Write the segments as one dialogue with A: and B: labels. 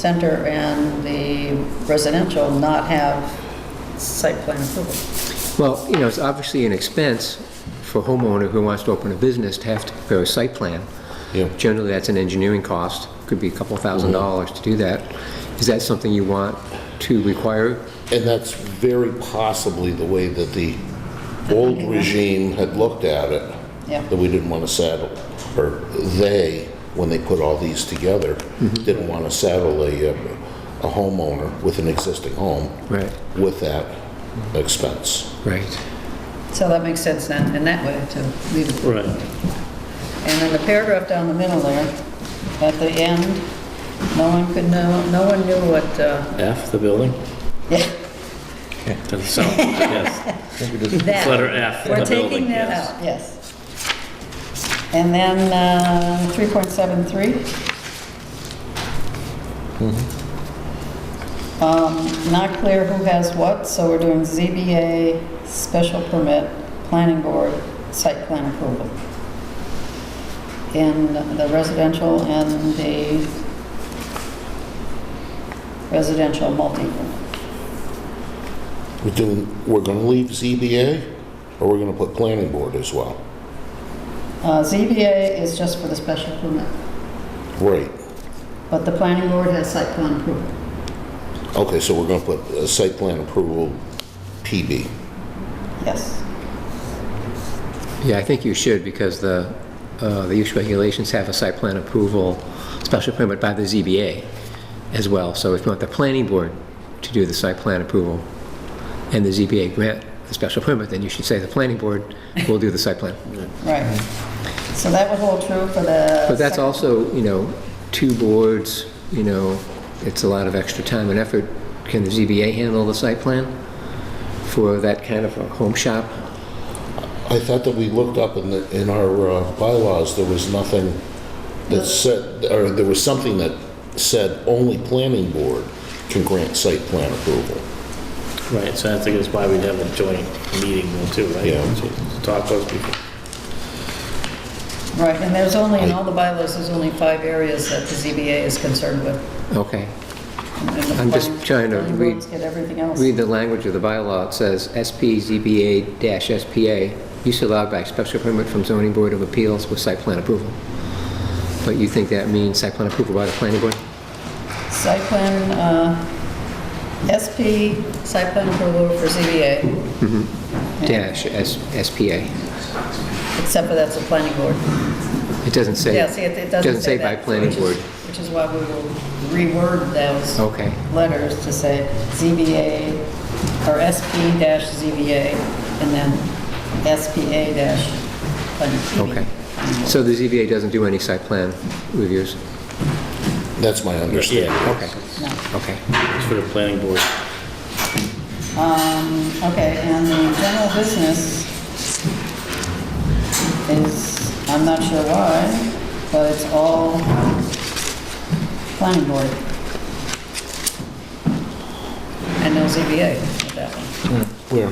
A: center and the residential not have site plan approval.
B: Well, you know, it's obviously an expense for a homeowner who wants to open a business to have to prepare a site plan.
C: Yeah.
B: Generally, that's an engineering cost, could be a couple thousand dollars to do that. Is that something you want to require?
C: And that's very possibly the way that the old regime had looked at it.
A: Yeah.
C: That we didn't want to saddle, or they, when they put all these together, didn't want to saddle a, uh, a homeowner with an existing home.
B: Right.
C: With that expense.
B: Right.
A: So that makes sense then, in that way, to leave it.
D: Right.
A: And then the paragraph down the middle there, at the end, no one could know, no one knew what, uh,
D: F, the building?
A: yeah,
D: Doesn't sound, yes.
A: that.
D: Letter F,
A: We're
D: the
A: taking
D: building,
A: that
D: yes.
A: out, yes. And then uh, 3.73. Um, Not clear who has what, so we're doing ZBA, special permit, planning board, site plan approval. In the residential and the residential multi.
C: We're doing, we're going to leave ZBA, or we're going to put planning board as well?
A: Uh, ZBA is just for the special permit.
C: Right.
A: But the planning board has site plan approval.
C: Okay, so we're going to put uh, site plan approval PB.
A: Yes.
B: Yeah, I think you should, because the, uh, the use regulations have a site plan approval, special permit by the ZBA as well. So if you want the planning board to do the site plan approval and the ZBA grant the special permit, then you should say the planning board will do the site plan.
A: Right. So that would hold true for the...
B: But that's
A: second-
B: also, you know, two boards, you know, it's a lot of extra time and effort. Can the ZBA handle the site plan for that kind of a home shop?
C: I thought that we looked up in the, in our uh, bylaws, there was nothing that said, or there was something that said only planning board can grant site plan approval.
D: Right, so I think that's why we'd have a joint meeting though too, right?
C: Yeah.
D: To Talk those people.
A: Right, and there's only, in all the bylaws, there's only five areas that the ZBA is concerned with.
B: Okay.
A: And the
B: I'm just
A: planning-
B: trying to
A: planning
B: read-
A: boards Get everything else.
B: Read the language of the bylaw. It says SP ZBA dash SPA, use allowed by special permit from zoning board of appeals with site plan approval. But you think that means site plan approval by the planning board?
A: Site plan, uh, SP, site plan approval for ZBA,
B: Dash S- SPA.
A: except for that's the planning board.
B: It doesn't say.
A: Yeah, see, it it doesn't say that.
B: by planning
A: which is-
B: board.
A: Which is why we will reword those.
B: Okay.
A: letters to say ZBA or SP-ZBA and then SPA dash.
B: Okay. So the ZBA doesn't do any site plan reviews?
C: That's my understanding.
D: Yeah,
B: Okay,
A: No.
B: okay.
D: it's for the planning board.
A: Um, okay, and the general business is, I'm not sure why, but it's all planning board. And no ZBA with that one.
C: Where?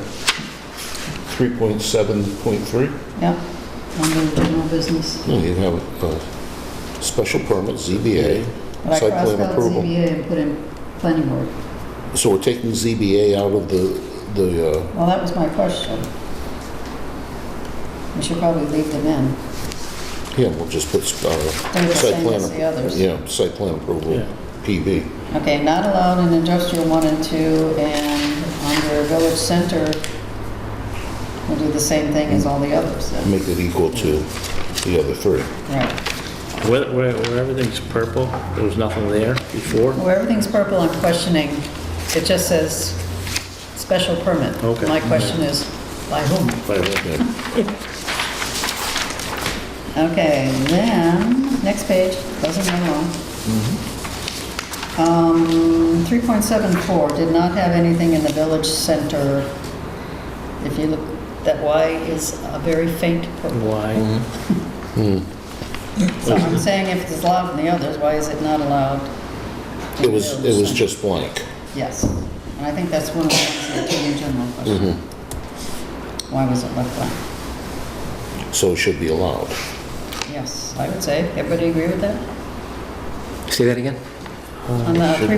C: 3.7.3?
A: Yep, under the general business.
C: No, You have a special permit, ZBA,
A: But I
C: site plan
A: crossed out
C: approval.
A: ZBA and put in planning board.
C: So we're taking ZBA out of the, the, uh,
A: Well, that was my question. We should probably leave them in.
C: yeah, we'll just put
A: They're
C: uh,
A: the
C: site
A: same
C: plan.
A: as the others.
C: Yeah, site plan approval,
D: Yeah.
C: PB.
A: Okay, not allowed in industrial one and two, and under village center, we'll do the same thing as all the others, then.
C: Make it equal to the other three.
A: right?
D: Where, where where everything's purple, there was nothing there before?
A: Well, everything's purple, I'm questioning, it just says special permit.
D: Okay.
A: My question is, by whom?
D: But it wasn't.
A: Okay, then, next page, doesn't go long.
C: Mm-hmm.
A: Um, 3.74 did not have anything in the village center. If you look, that Y is a very faint
C: Mm,
A: purple.
D: Why?
A: So I'm saying if it's allowed in the others, why is it not allowed? in
C: It
A: the
C: was,
A: village
C: it was
A: center?
C: just blank.
A: Yes, and I think that's one of the things that came in general question.
C: Mm-hmm.
A: Why was it left blank?
C: so it should be allowed.
A: Yes, I would say, everybody agree with that?
B: Say that again?
A: on the
C: Uh, Should
A: three